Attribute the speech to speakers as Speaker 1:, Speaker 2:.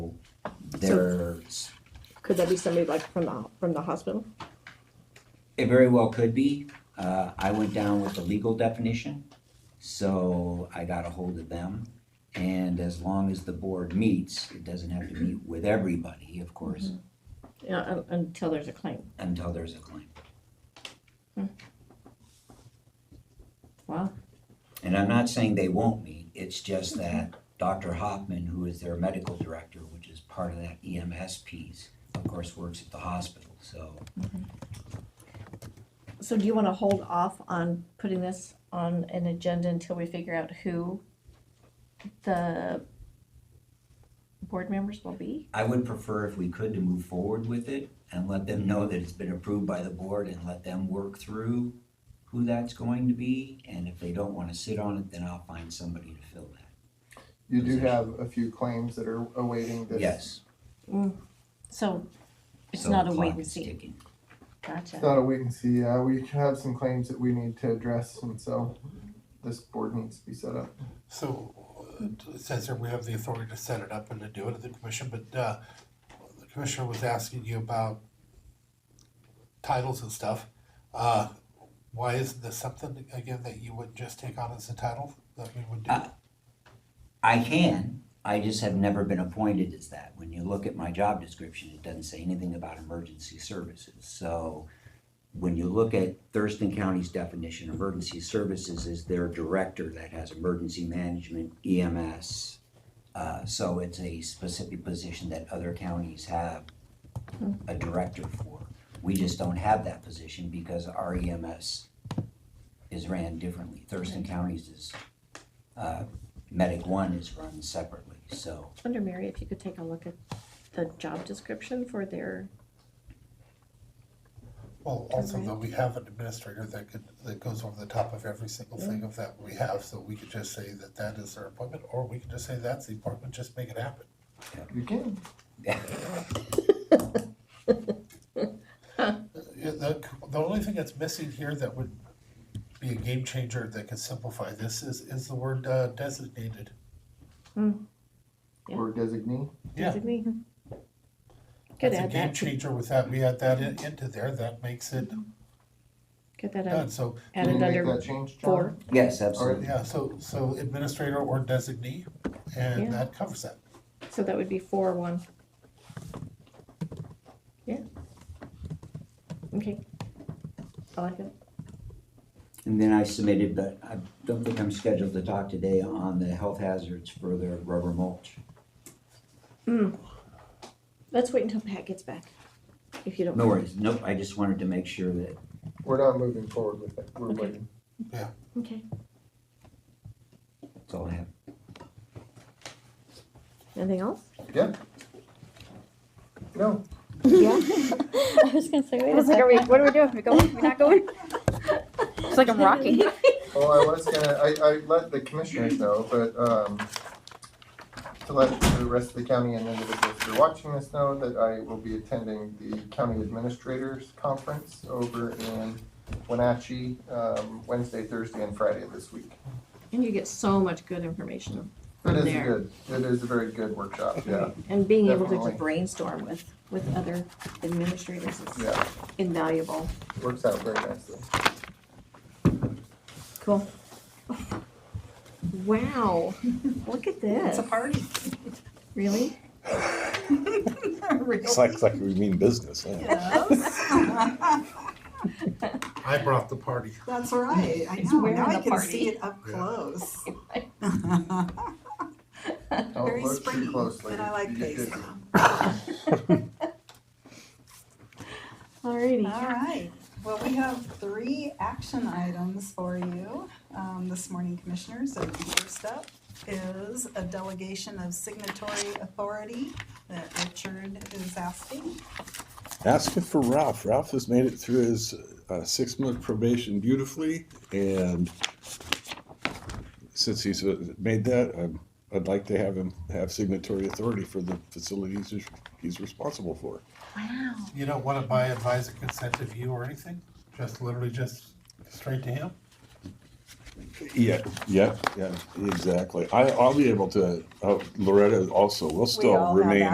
Speaker 1: There's,
Speaker 2: Could that be somebody like from the, from the hospital?
Speaker 1: it very well could be. Uh, I went down with the legal definition, so I got a hold of them. And as long as the board meets, it doesn't have to meet with everybody, of course,
Speaker 2: Yeah, un- until there's a claim.
Speaker 1: until there's a claim.
Speaker 2: Wow.
Speaker 1: And I'm not saying they won't meet, it's just that Dr. Hoffman, who is their medical director, which is part of that EMS piece, of course, works at the hospital, so.
Speaker 3: So do you wanna hold off on putting this on an agenda until we figure out who the board members will be?
Speaker 1: I would prefer if we could to move forward with it and let them know that it's been approved by the board and let them work through who that's going to be, and if they don't wanna sit on it, then I'll find somebody to fill that.
Speaker 4: You do have a few claims that are awaiting this.
Speaker 1: Yes.
Speaker 3: So it's
Speaker 1: so
Speaker 3: not a
Speaker 1: clock
Speaker 3: wait and
Speaker 1: is
Speaker 3: see,
Speaker 1: ticking.
Speaker 4: It's
Speaker 3: gotcha.
Speaker 4: not a wait and see, uh, we have some claims that we need to address, and so this board needs to be set up.
Speaker 5: So uh, it says here we have the authority to set it up and to do it at the commission, but uh, the commissioner was asking you about titles and stuff. Uh, Why isn't this something, again, that you would just take on as a title that we would do?
Speaker 1: Uh, I can, I just have never been appointed as that. When you look at my job description, it doesn't say anything about emergency services, so when you look at Thurston County's definition, emergency services is their director that has emergency management, EMS. Uh, so it's a specific position that other counties have a director for. We just don't have that position because our EMS is ran differently. Thurston County's is, uh, Medic One is run separately, so.
Speaker 3: I wonder, Mary, if you could take a look at the job description for their,
Speaker 5: Well, also that we have an administrator that could, that goes over the top of every single thing of that we have, so we could just say that that is their appointment, or we could just say that's the appointment, just make it happen.
Speaker 4: You can,
Speaker 5: Yeah, the, the only thing that's missing here that would be a game changer that could simplify this is, is the word uh, designated.
Speaker 3: Yeah.
Speaker 4: or designate,
Speaker 5: Yeah. Mm-hmm.
Speaker 3: designate. Could
Speaker 5: That's a
Speaker 3: add
Speaker 5: game
Speaker 3: that,
Speaker 5: changer with that, we add that in, into there, that makes it
Speaker 3: could that
Speaker 5: done,
Speaker 3: add,
Speaker 5: so,
Speaker 4: can you
Speaker 3: added
Speaker 4: make
Speaker 3: under
Speaker 4: that change,
Speaker 3: four?
Speaker 4: John?
Speaker 1: Yes, absolutely.
Speaker 5: yeah, so, so administrator or designee,
Speaker 3: Yeah.
Speaker 5: and that covers that.
Speaker 3: So that would be four, one. Yeah. Okay. I like it.
Speaker 1: And then I submitted, but I don't think I'm scheduled to talk today on the health hazards for the rubber mulch.
Speaker 3: Mm. Let's wait until Pat gets back, if you don't.
Speaker 1: No worries, nope, I just wanted to make sure that,
Speaker 4: We're not moving forward with it, we're
Speaker 3: Okay.
Speaker 4: waiting.
Speaker 3: Okay,
Speaker 1: that's all I have.
Speaker 2: Anything else?
Speaker 4: No,
Speaker 2: Yeah.
Speaker 6: I was gonna say, wait
Speaker 2: I
Speaker 6: a
Speaker 2: was like, are we,
Speaker 6: second.
Speaker 2: what are we doing? Are we going? We're not going? It's like I'm rocking.
Speaker 4: well, I was gonna, I, I let the commissioners know, but, um, to let the rest of the county and individuals who are watching this know that I will be attending the County Administrators Conference over in Wenatchee, um, Wednesday, Thursday, and Friday this week.
Speaker 3: and you get so much good information
Speaker 4: It
Speaker 3: from
Speaker 4: is a
Speaker 3: there.
Speaker 4: good, it is a very good workshop, yeah,
Speaker 3: And being able to
Speaker 4: Definitely.
Speaker 3: just brainstorm with, with other administrators is
Speaker 4: yeah,
Speaker 3: invaluable.
Speaker 4: works out very nicely.
Speaker 3: Cool. Wow, look at this.
Speaker 6: It's a party.
Speaker 3: Really?
Speaker 7: It's like, it's like we mean business, yeah.
Speaker 6: Yes.
Speaker 5: I brought the party.
Speaker 6: That's right. I
Speaker 3: He's
Speaker 6: know.
Speaker 3: wearing
Speaker 6: Now
Speaker 3: the
Speaker 6: I can
Speaker 3: party.
Speaker 6: see it up
Speaker 5: Yeah.
Speaker 6: close.
Speaker 4: Don't
Speaker 6: Very
Speaker 4: look
Speaker 6: springy,
Speaker 4: too Oh, closely.
Speaker 6: but I like
Speaker 4: You get
Speaker 6: these.
Speaker 4: dizzy.
Speaker 3: Alrighty.
Speaker 6: All right. Well, we have three action items for you um, this morning, Commissioners. So the first up is a delegation of signatory authority that Richard is asking.
Speaker 7: Asking for Ralph. Ralph has made it through his uh, six month probation beautifully, and since he's uh, made that, um, I'd like to have him have signatory authority for the facilities he's- he's responsible for.
Speaker 3: Wow.
Speaker 5: You don't want to buy advisor consent of you or anything, just literally just straight to him?
Speaker 7: Yeah, yeah, yeah, exactly. I, I'll be able to. Uh, Loretta also will still
Speaker 6: all have
Speaker 7: remain